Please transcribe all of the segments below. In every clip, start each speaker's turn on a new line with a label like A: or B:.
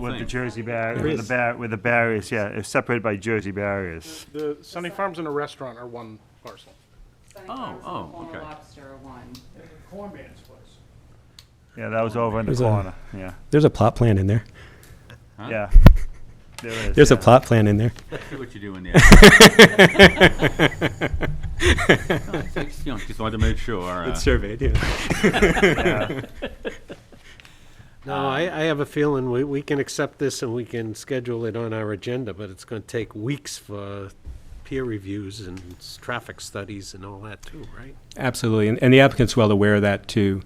A: With the Jersey barrier,
B: There
A: with the
B: is.
A: bar, with the barriers, yeah, it's separated by Jersey barriers.
C: The Sunny Farms and a restaurant are one parcel.
D: Sunny
E: Oh,
D: Farms and
E: oh,
D: the Corner
E: okay.
D: Lobster are one.
F: Cornman's place.
A: Yeah, that was over in the
B: There's a-
A: corner, yeah,
B: There's a plot plan in there.
E: Huh?
A: yeah. There is,
B: There's a
A: yeah.
B: plot plan in there.
E: See what you're doing there. No, it's- it's, you know, Just wanted to make sure. uh,
B: It's surveyed, yeah.
G: No, I,
E: Um,
G: I have a feeling we, we can accept this and we can schedule it on our agenda, but it's gonna take weeks for peer reviews and s- traffic studies and all that too, right?
B: Absolutely, and, and the applicant's well aware of that too.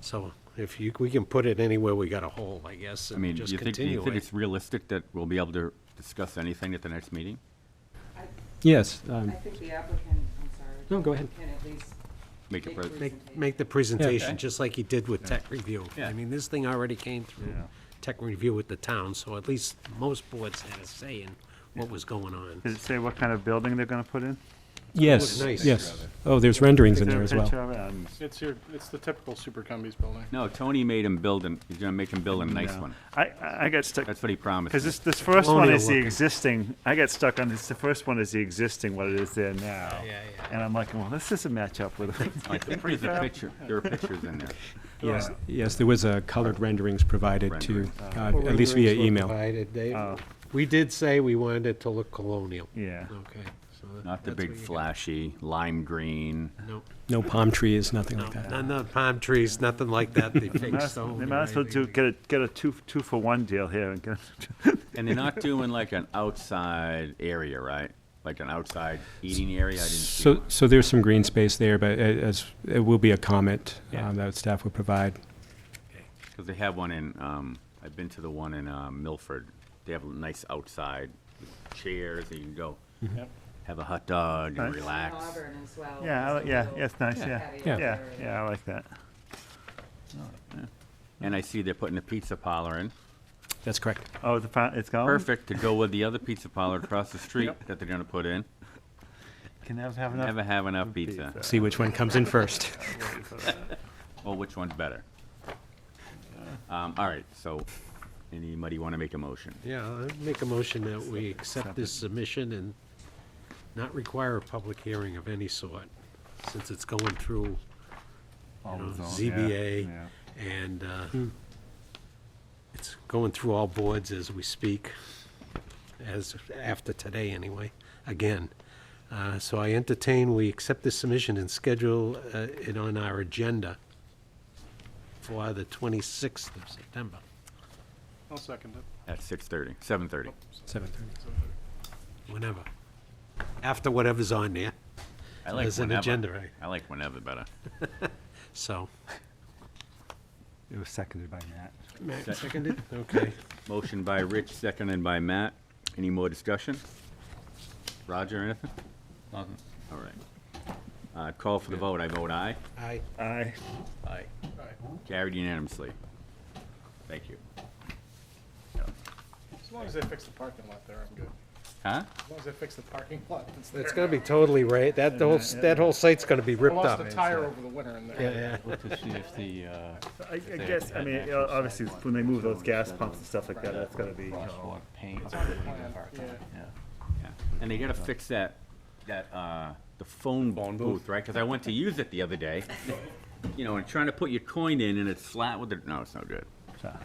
G: So if you, we can put it anywhere we got a hole, I guess,
E: I
G: and
E: mean, do
G: just
E: you think, do you
G: continue
E: think
G: it.
E: it's realistic that we'll be able to discuss anything at the next meeting?
B: Yes,
D: I
B: um,
D: think the applicant, I'm sorry.
B: No, go ahead.
D: Can at least
E: Make a
D: Make
E: pres-
D: pres-
G: Make, make the presentation,
E: Okay.
G: just like he did with tech review.
E: Yeah.
G: I mean, this thing already came through
A: Yeah.
G: tech review with the town, so at least most boards had a say in what was going on.
A: Does it say what kind of building they're gonna put in?
B: yes,
G: nice.
B: yes. Oh, there's renderings in
A: Is
B: there
A: a
B: as well.
A: picture of it? Um,
C: It's your, it's the typical Super Cumbies building.
E: No, Tony made him build, an- he's gonna make him build a nice
A: no.
E: one.
A: I, I I got stuck,
E: That's what he promised.
A: cause
E: me.
A: this, this first one
G: Colonial
A: is the
G: looking.
A: existing, I got stuck on this, the first one is the existing, what it is there now.
G: yeah, yeah.
A: And I'm like, well, this doesn't match up with it.
E: I think there's a picture, there are pictures in there.
B: Yes, yes, there was uh, colored renderings provided too,
E: Renderings.
B: uh,
G: Oh.
B: at least via email.
G: Provided, Dave.
A: Oh.
G: We did say we wanted it to look colonial.
A: Yeah,
G: Okay. so that-
E: Not the
G: that's what
E: big
G: you got.
E: flashy lime green.
G: Nope.
B: No palm trees, nothing
G: No,
B: like that.
G: no, no palm trees, nothing like that.
A: they
G: They
A: might
G: fixed
A: as-
G: stone.
A: they might as well do, get a, get a two, two for one deal here and get,
E: And they're not doing like an outside area, right? Like an outside eating area? I didn't see
B: So,
E: one.
B: so there's some green space there, but it, as, it will be a comment um, that staff will provide.
E: Because they have one in, um, I've been to the one in, um, Milford. They have a nice outside with chairs and you can go
C: Yep.
E: have a hot dog and
A: Nice.
E: relax.
D: Auburn as well.
A: yeah, I
D: just
A: li-
D: a
A: yeah,
D: little
A: yeah, it's nice, yeah,
D: patio
B: Yeah.
A: yeah,
D: area.
A: yeah, I like that.
E: And I see they're putting a pizza parlor in.
B: That's correct.
A: Oh, the, fa- it's gone?
E: Perfect to go with the other pizza parlor across the street
C: Yep.
E: that they're gonna put in.
A: Can never have enough
E: Never have enough pizza.
B: See which one comes in first.
E: Well, which one's better? Um, all right, so anybody want to make a motion?
G: Yeah, I make a motion that we accept this submission and not require a public hearing of any sort, since it's going through
A: All
G: you know,
A: the zone- yeah,
G: ZBA,
A: yeah.
G: and uh, it's going through all boards as we speak, as, after today anyway, again. Uh, So I entertain, we accept this submission and schedule uh, it on our agenda for the 26th of September.
C: I'll second it.
E: At six thirty, seven thirty.
B: Seven thirty.
G: whenever, after whatever's on there,
E: I like
G: As an
E: whenever.
G: agenda, right?
E: I like whenever better.
G: so.
A: It was seconded by Matt.
G: Seconded? Okay.
E: Motion by Rich, seconded by Matt. Any more discussion? Roger, anything? All right. Uh, call for the vote. I vote aye.
G: Aye.
A: Aye.
E: Aye. Carried unanimously. Thank you.
C: As long as they fix the parking lot there, I'm good.
E: Huh?
C: As long as they fix the parking lot that's there.
G: It's gonna be totally right, that whole, that whole site's gonna be
C: I
G: ripped
C: lost
G: up.
C: a tire over the winter in there.
G: Yeah, yeah.
H: to see if the, uh,
A: I, I guess, I mean, you know, obviously, when they move those gas pumps and stuff like that, that's gotta be, you know,
H: crosswalk paint.
E: Yeah. And they gotta fix that, that, uh, the phone booth, right? Cause I went to use it the other day, you know, and trying to put your coin in and it's flat with the, no, it's no good.
A: that's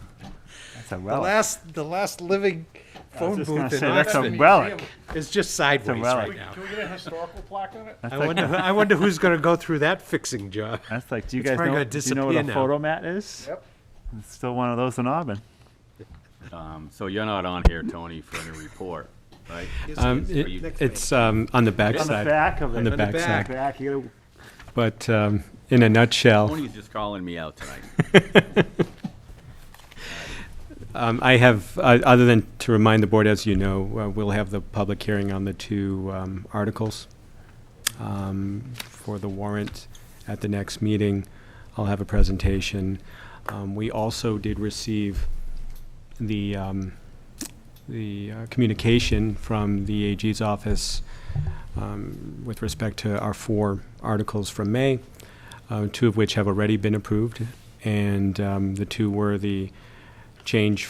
A: a
G: The
A: relic.
G: last, the last living phone
A: just gonna
G: booth in
A: say, that's a
G: Oxford
A: relic.
G: is just sideways right
A: relic.
G: now.
C: Can we get a historical plaque on it?
A: That's
G: I
A: like-
G: wonder, I wonder who's gonna go through that fixing job.
A: That's like, do you
G: It's
A: guys
G: probably
A: know,
G: gonna
A: do you know what
G: disappear
A: a
G: now.
A: photo mat is?
C: Yep.
A: It's still one of those in Auburn.
E: Um, so you're not on here, Tony, for any report, right? Uh,
B: Um,
E: Are you-
B: it- It's um, on the back
A: On the
B: side.
A: back of it.
B: On the back
G: back.
B: side.
A: Back, you gotta-
B: But um, in a nutshell,
E: Tony's just calling me out tonight.
B: Um, I have, uh, other than to remind the board, as you know, uh, we'll have the public hearing on the two um, articles um, for the warrant at the next meeting. I'll have a presentation. Um, We also did receive the, um, the uh, communication from the AG's office um, with respect to our four articles from May, uh, two of which have already been approved, and um, the two were the change